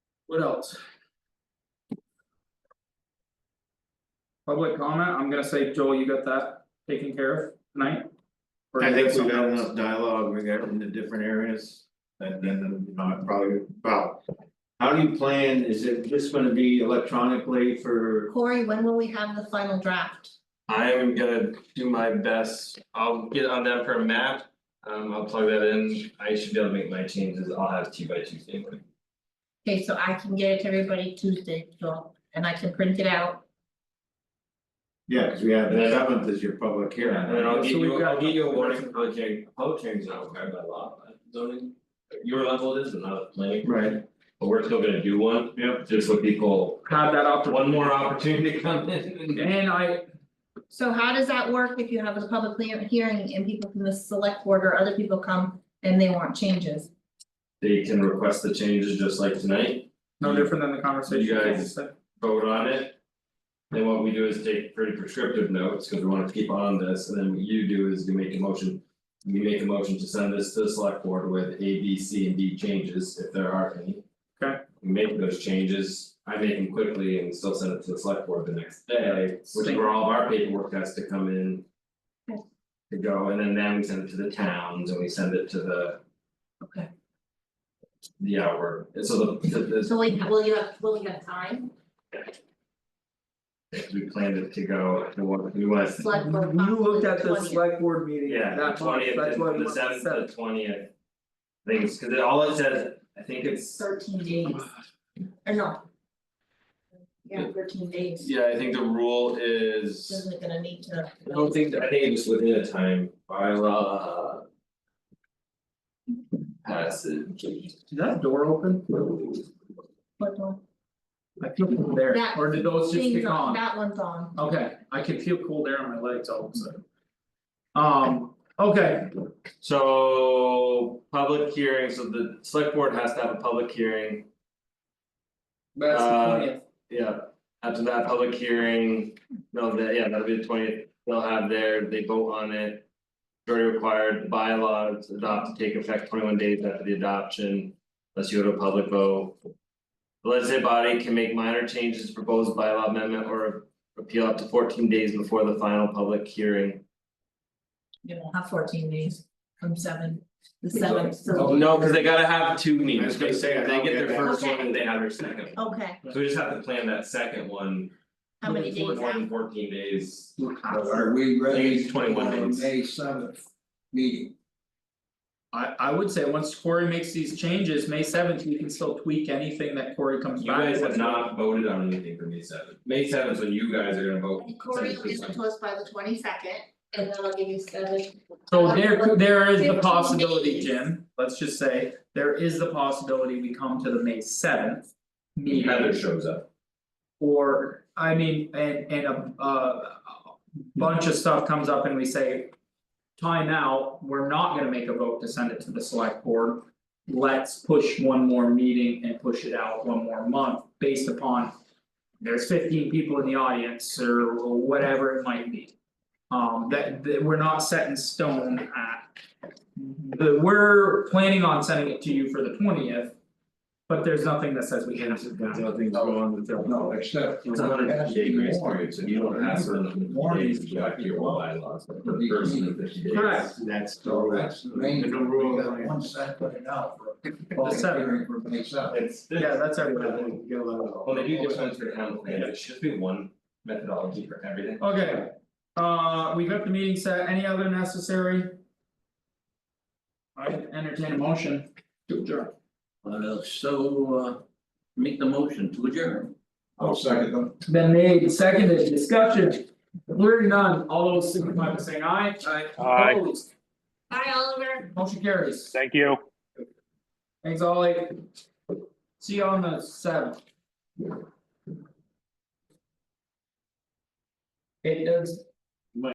What else? Public comment, I'm gonna say, Joel, you got that taken care of tonight? Or I you think we something got else? enough dialogue, we got in the different areas, and then, you know, I probably about. How do you plan, is it just gonna be electronically for, Corey, when will we have the final draft? I'm gonna do my best, I'll get on that for a map, um I'll plug that in, I should be able to make my changes, I'll have two by Tuesday morning. Okay, so I can get it to everybody Tuesday, Joel, and I can print it out. yeah, cause we have the seventh is your public hearing. And then I'll right? get So we've you, got I'll get you a nothing warning, else. public hearing, public hearings are required by law, but zoning. Your level it is, and not planning, Right, but we're still gonna do one, yep, just so people, Had that opportunity, one more opportunity to come in and. and I, So how does that work if you have a public lea- hearing and people from the select board or other people come and they want changes? They can request the changes just like tonight, no different than the conversation You we guys- just had. vote on it. Then what we do is take pretty prescriptive notes, cause we wanna keep on this, and then what you do is you make a motion. We make a motion to send this to the select board with A, B, C, and D changes, if there are any. Okay. We Make those changes, I make them quickly and still send it to the select board the next day, which is where all of our paperwork has to come in. Okay. To go, and then then we send it to the towns, and we send it to the. Okay. The hour, and so the, the- So we, will you have, will you have time? we planned it to go, we want, we want. Select board You looked possibly at the 20th. select board meeting Yeah, that the month, twentieth, that's why we the want the seventh, the seventh, twentieth. Things, cause it all it says, I think it's, Thirteen days, or no? Yeah, thirteen days, yeah, I think the rule is, isn't gonna need to. I don't think, I think it's within a time by law. uh, Passage. is that door open? What the- I feel cold air, That or did those just Things kick on, on? that one's on. Okay, I can feel cold air on my legs all of a sudden. Um, Uh, okay, So, public hearing, so the select board has to have a public hearing. that's the Uh, twentieth, Yeah, after that public hearing, no, that, yeah, that'll be the twentieth, they'll have their, they vote on it. Majority required bylaws adopt to take effect twenty one days after the adoption, unless you go to a public vote. The legislative body can make minor changes to proposed bylaw amendment or appeal up to fourteen days before the final public hearing. You know, have fourteen days from seven, the Okay. seventh, so. Oh, No, cause they gotta have two meetings. I was gonna say, I They don't get get their that. first one Okay. and they have their second, Okay, so we just have to plan that second one, how many days more out? than fourteen days. Are we I think ready it's 21 for days. May seventh meeting? I I would say once Corey makes these changes, May seventh, we can still tweak anything that Corey comes You back guys have with. not voted on anything for May seventh, May seventh, when you guys are gonna vote. And Corey will give it to us by the twenty second, and then I'll give you seven. So there could, there is the Fifteen possibility, days. Jim, let's just say, there is the possibility we come to the May seventh. Meeting Heather shows up. or, I mean, and and a uh. Bunch of stuff comes up and we say. Time out, we're not gonna make a vote to send it to the select board. Let's push one more meeting and push it out one more month based upon. There's fifteen people in the audience or whatever it might be. Um, that that we're not set in stone at. The, we're planning on sending it to you for the twentieth. But there's nothing that says we can't. do that. nothing's wrong with their. No, except for. It's a hundred and fifty day grace More. period, so you don't have to Warning. days to act your bylaws, but for the first and fifty days. Correct. That's the So rule. that's the main, The we rule. got one set put it out for public seventh. hearing for May seventh. It's this. Yeah, that's everybody. Well, they do get ones for town plans, it should be one methodology for everything. Okay, uh, we've got the meeting set, any other necessary? I entertain a motion to adjourn. Uh, so, uh, make the motion to adjourn. I'll second them. Been made, seconded, discussion, hearing none, all those signify by saying aye. Aye. Aye. Opposed, Bye, Oliver. motion carries, Thank you. thanks all eight. See you on the seventh. It does.